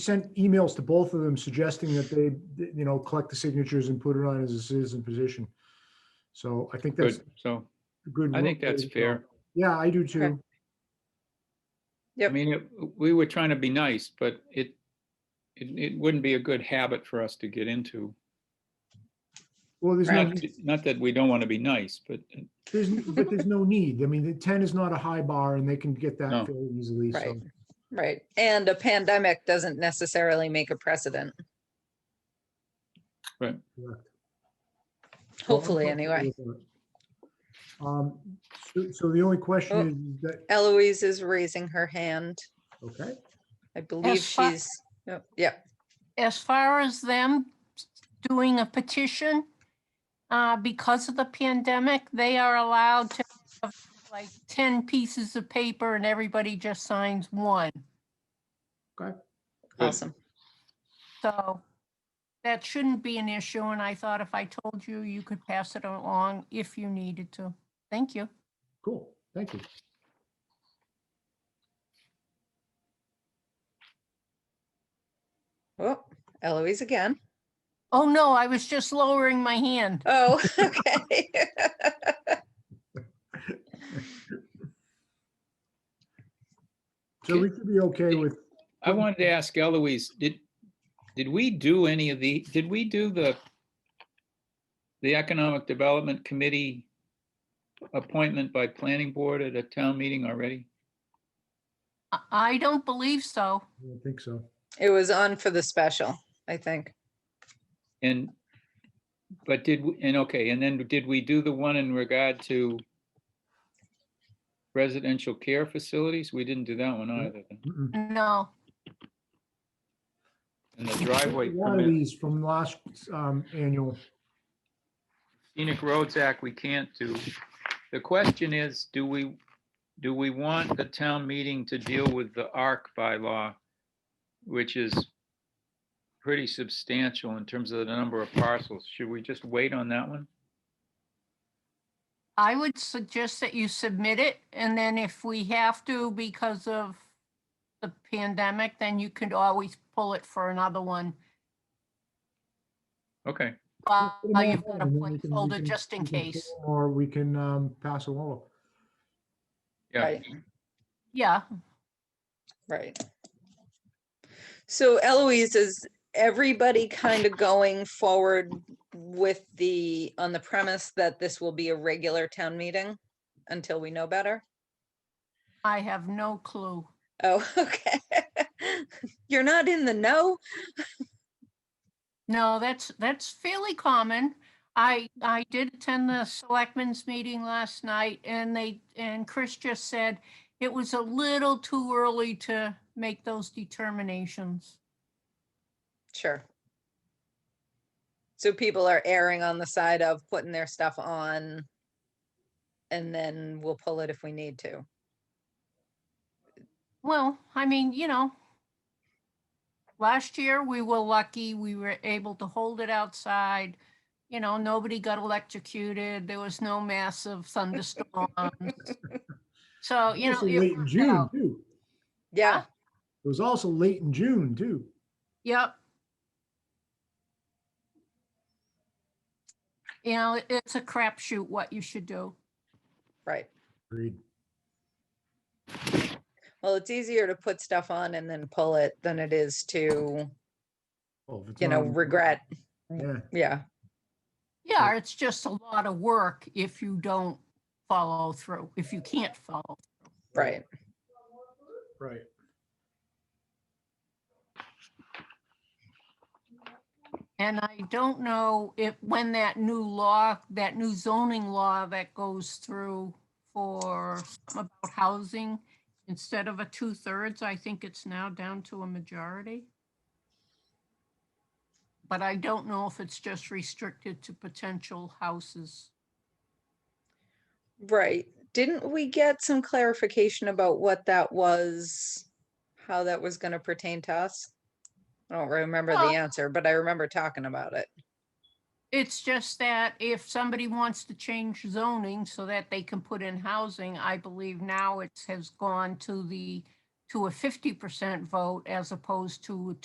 sent emails to both of them suggesting that they, you know, collect the signatures and put it on as a citizen position. So I think that's Good, so a good. I think way that's to go. fair. Yeah, I do too. I Yep. mean, it- we were trying to be nice, but it, it, it wouldn't be a good habit for us to get into. Well, there's no, Not, not that we don't want to be nice, but uh, there's, but there's no need. I mean, the ten is not a high bar and they can get No. that fairly easily. So, Right. Right. And a pandemic doesn't necessarily make a precedent, correct. Well, I'm hopefully, comfortable anyway. with that. Um, so, so the only Oh. question is that, Eloise is raising her hand. okay, I believe fi- she's, oh, yep, yep, as far as them doing a petition, uh, because of the pandemic, they are allowed to have like ten pieces of paper and everybody just signs one. Good. awesome. So that shouldn't be an issue. And I thought if I told you, you could pass it along if you needed to. Thank you. cool. Thank you. Oh, Eloise again. Oh, no, I was just lowering my hand. Oh, okay. So we should be okay with, I wanted to ask Eloise, did, did we do any of the, did we do the, the Economic Development Committee appointment by planning board at a town meeting already? I- I don't believe so. I don't think so. It was on for the special, I think. And, but did, we- and okay, and then did we do the one in regard to residential care facilities? We didn't do that one either. Mm-mm. No. And the driveway One of permit, these from last, um, annual, scenic roads act, we can't do. The question is, do we, do we want the town meeting to deal with the ARC bylaw? Which is pretty substantial in terms of the number of parcels. Should we just wait on that one? I would suggest that you submit it, and then if we have to because of the pandemic, then you could always pull it for another one. Okay, While put 'em all you've got a on, and then we can- we placeholder can- just in we can case. pull 'em Or we can, um, pass along. yeah. Right. Yeah, Right. So Eloise, is everybody kind of going forward with the, on the premise that this will be a regular town meeting until we know better? I have no clue. Oh, okay. You're not in the know? No, that's, that's fairly common. I, I did attend the selectmen's meeting last night and they, and Chris just said it was a little too early to make those determinations. Sure. So people are erring on the side of putting their stuff on and then we'll pull it if we need to. Well, I mean, you know, last year we were lucky, we were able to hold it outside. You know, nobody got electrocuted, there was no massive thunderstorms. So, you know. Also it late in worked June, out. too. Yeah, It was also late in June, too. Yep. You know, it- it's a crapshoot what you should do. right. Agreed. Well, it's easier to put stuff on and then pull it than it is to, Oh, if it's you know, not on- regret. Yeah, Yeah, Yeah, it's just a lot of work if you don't follow through, if you can't follow. right. right. And I don't know if, when that new law, that new zoning law that goes through for something about housing, instead of a two-thirds, I think it's now down to a majority. But I don't know if it's just restricted to potential houses. Right. Didn't we get some clarification about what that was? How that was gonna pertain to us? I don't remember Well- the answer, but I remember talking about it. It's just that if somebody wants to change zoning so that they can put in housing, I believe now it has gone to the, to a fifty percent vote as opposed to a